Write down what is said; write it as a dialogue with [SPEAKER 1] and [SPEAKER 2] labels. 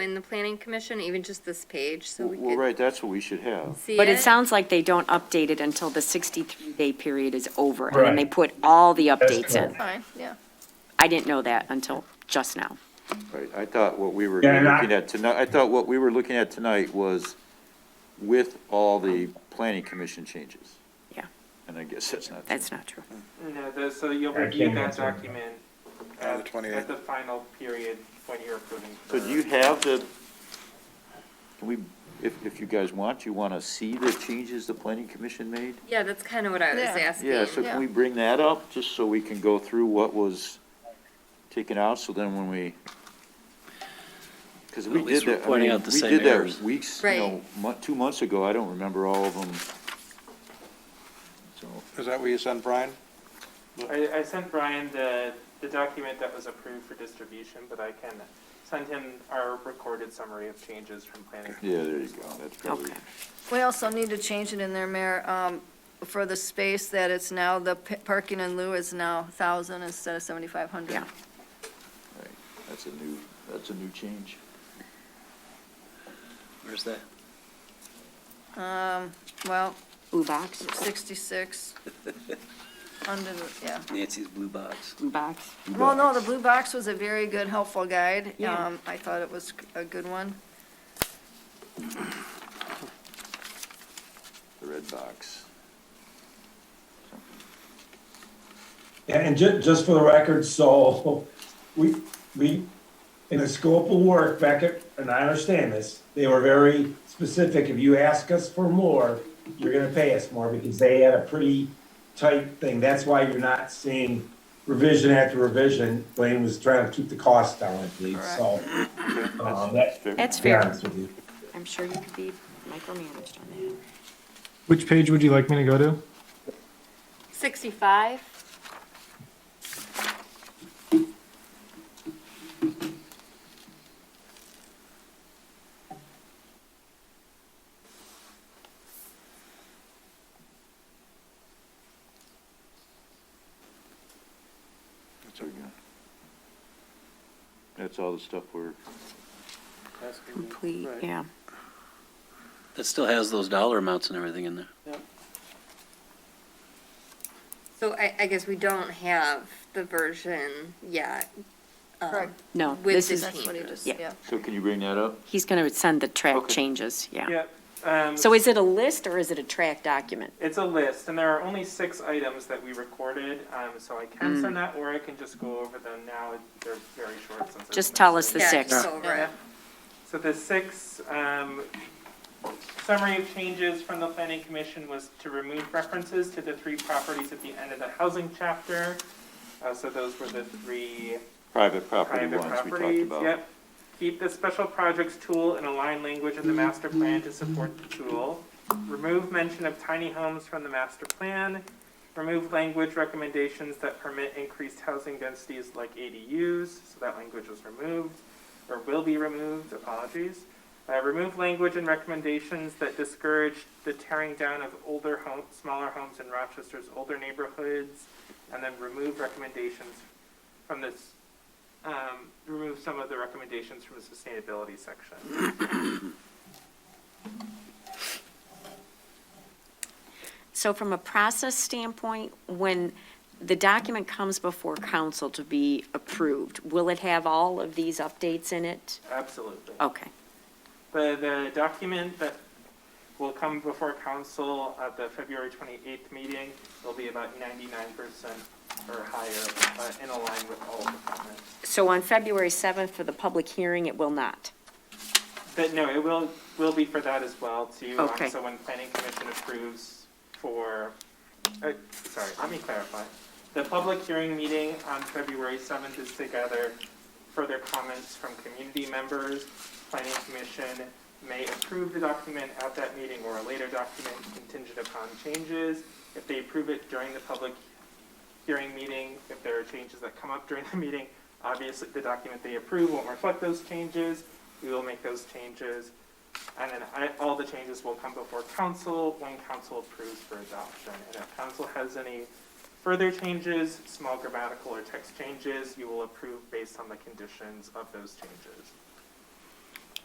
[SPEAKER 1] in the planning commission, even just this page, so we
[SPEAKER 2] Well,
[SPEAKER 1] could
[SPEAKER 2] right, that's what we should have.
[SPEAKER 1] see it.
[SPEAKER 3] But it sounds like they don't update it until the 63-day period is over, and then they
[SPEAKER 4] Right.
[SPEAKER 3] put all the updates in.
[SPEAKER 4] correct.
[SPEAKER 5] Fine, yeah.
[SPEAKER 3] I didn't know that until just now.
[SPEAKER 2] Right, I thought what we were
[SPEAKER 4] Yeah, and I-
[SPEAKER 2] looking at tonight, I thought what we were looking at tonight was with all the planning commission changes.
[SPEAKER 3] Yeah.
[SPEAKER 2] And I guess that's not.
[SPEAKER 3] That's not true.
[SPEAKER 6] No, the- so you'll
[SPEAKER 4] I
[SPEAKER 6] review
[SPEAKER 4] can't
[SPEAKER 6] that
[SPEAKER 4] answer that.
[SPEAKER 6] document
[SPEAKER 7] On the
[SPEAKER 6] at,
[SPEAKER 7] 28th.
[SPEAKER 6] at the final period when you're approving.
[SPEAKER 2] So do you have the, can we, if, if you guys want, you want to see the changes the planning commission made?
[SPEAKER 1] Yeah, that's kind of what I was
[SPEAKER 5] Yeah.
[SPEAKER 1] asking.
[SPEAKER 2] Yeah, so
[SPEAKER 5] Yeah.
[SPEAKER 2] can we bring that up, just so we can go through what was taken out, so then when we, because we
[SPEAKER 8] At least
[SPEAKER 2] did
[SPEAKER 8] we're
[SPEAKER 2] that, I
[SPEAKER 8] pointing
[SPEAKER 2] mean,
[SPEAKER 8] out the
[SPEAKER 2] we
[SPEAKER 8] same
[SPEAKER 2] did that
[SPEAKER 8] errors.
[SPEAKER 2] weeks, you know, mon- two months ago, I don't remember all of them. So,
[SPEAKER 7] Is that where you sent Brian?
[SPEAKER 6] I, I sent Brian the, the document that was approved for distribution, but I can send him our recorded summary of changes from planning.
[SPEAKER 2] yeah, there you go, that's probably,
[SPEAKER 3] Okay.
[SPEAKER 5] We also need to change it in there, Mayor, um, for the space that it's now, the p- parking in lieu is now 1,000 instead of 7,500.
[SPEAKER 3] Yeah.
[SPEAKER 2] that's a new, that's a new change.
[SPEAKER 8] Where's that?
[SPEAKER 5] Um, well,
[SPEAKER 3] Blue box,
[SPEAKER 5] 66, under, the yeah.
[SPEAKER 8] Nancy's blue box.
[SPEAKER 3] blue box.
[SPEAKER 5] Well, no, the blue box was a very good, helpful guide.
[SPEAKER 3] Yeah.
[SPEAKER 5] Um, I thought it was a good one.
[SPEAKER 2] The red box.
[SPEAKER 4] Yeah, And ju- just for the record, so we, we, in the scope of work, Beckett, and I understand this, they were very specific. If you ask us for more, you're gonna pay us more because they had a pretty tight thing. That's why you're not seeing revision after revision. Blaine was trying to keep the cost down, I believe, so. um, that-
[SPEAKER 3] That's
[SPEAKER 4] to be
[SPEAKER 3] fair.
[SPEAKER 4] honest with you.
[SPEAKER 3] I'm sure you could be micromanaged on that.
[SPEAKER 9] Which page would you like me to go to?
[SPEAKER 1] Sixty-five?
[SPEAKER 2] That's all we got. That's all the stuff we're,
[SPEAKER 3] Complete, yeah.
[SPEAKER 8] That still has those dollar amounts and everything in there.
[SPEAKER 1] So I, I guess we don't have the version yet. um,
[SPEAKER 5] Correct.
[SPEAKER 3] No,
[SPEAKER 1] With
[SPEAKER 3] this
[SPEAKER 1] the
[SPEAKER 3] is,
[SPEAKER 5] That's what he just,
[SPEAKER 3] Yeah.
[SPEAKER 5] yeah.
[SPEAKER 2] so can you bring that up?
[SPEAKER 3] he's gonna send the track
[SPEAKER 2] Okay.
[SPEAKER 3] changes, yeah.
[SPEAKER 6] Yep, um,
[SPEAKER 3] So is it a list or is it a track document?
[SPEAKER 6] it's a list, and there are only six items that we recorded, um, so I can
[SPEAKER 3] Mm.
[SPEAKER 6] send that, or I can just go over them now, they're very short since. I
[SPEAKER 3] Just
[SPEAKER 6] didn't
[SPEAKER 3] tell us
[SPEAKER 6] actually-
[SPEAKER 3] The
[SPEAKER 1] yeah,
[SPEAKER 3] six.
[SPEAKER 1] just over it.
[SPEAKER 6] So the six, um, summary of changes from the planning commission was to remove references to the three properties at the end of the housing chapter. Uh, so those were the three
[SPEAKER 2] Private property
[SPEAKER 6] private
[SPEAKER 2] ones we talked
[SPEAKER 6] properties,
[SPEAKER 2] about.
[SPEAKER 6] yep. Keep the special projects tool and align language in the master plan to support the tool. Remove mention of tiny homes from the master plan. Remove language recommendations that permit increased housing densities like ADUs, so that language was removed, or will be removed, apologies. Uh, remove language and recommendations that discourage the tearing down of older home, smaller homes in Rochester's older neighborhoods, and then remove recommendations from this um, remove some of the recommendations from the sustainability section.
[SPEAKER 3] So from a process standpoint, when the document comes before council to be approved, will it have all of these updates in it?
[SPEAKER 6] Absolutely.
[SPEAKER 3] Okay,
[SPEAKER 6] Uh, The, the document that will come before council at the February 28th meeting will be about 99% or higher uh, in align with all of the comments.
[SPEAKER 3] so on February 7th for the public hearing, it will not?
[SPEAKER 6] But no, it will, will be for that as well too. Um,
[SPEAKER 3] Okay.
[SPEAKER 6] So when planning commission approves for, uh, sorry, let me clarify. The public hearing meeting on February seventh is to gather further comments from community members. Planning commission may approve the document at that meeting or a later document contingent upon changes. If they approve it during the public hearing meeting, if there are changes that come up during the meeting, obviously the document they approve won't reflect those changes. We will make those changes. And then I, all the changes will come before council when council approves for adoption. And if council has any further changes, small grammatical or text changes, you will approve based on the conditions of those changes.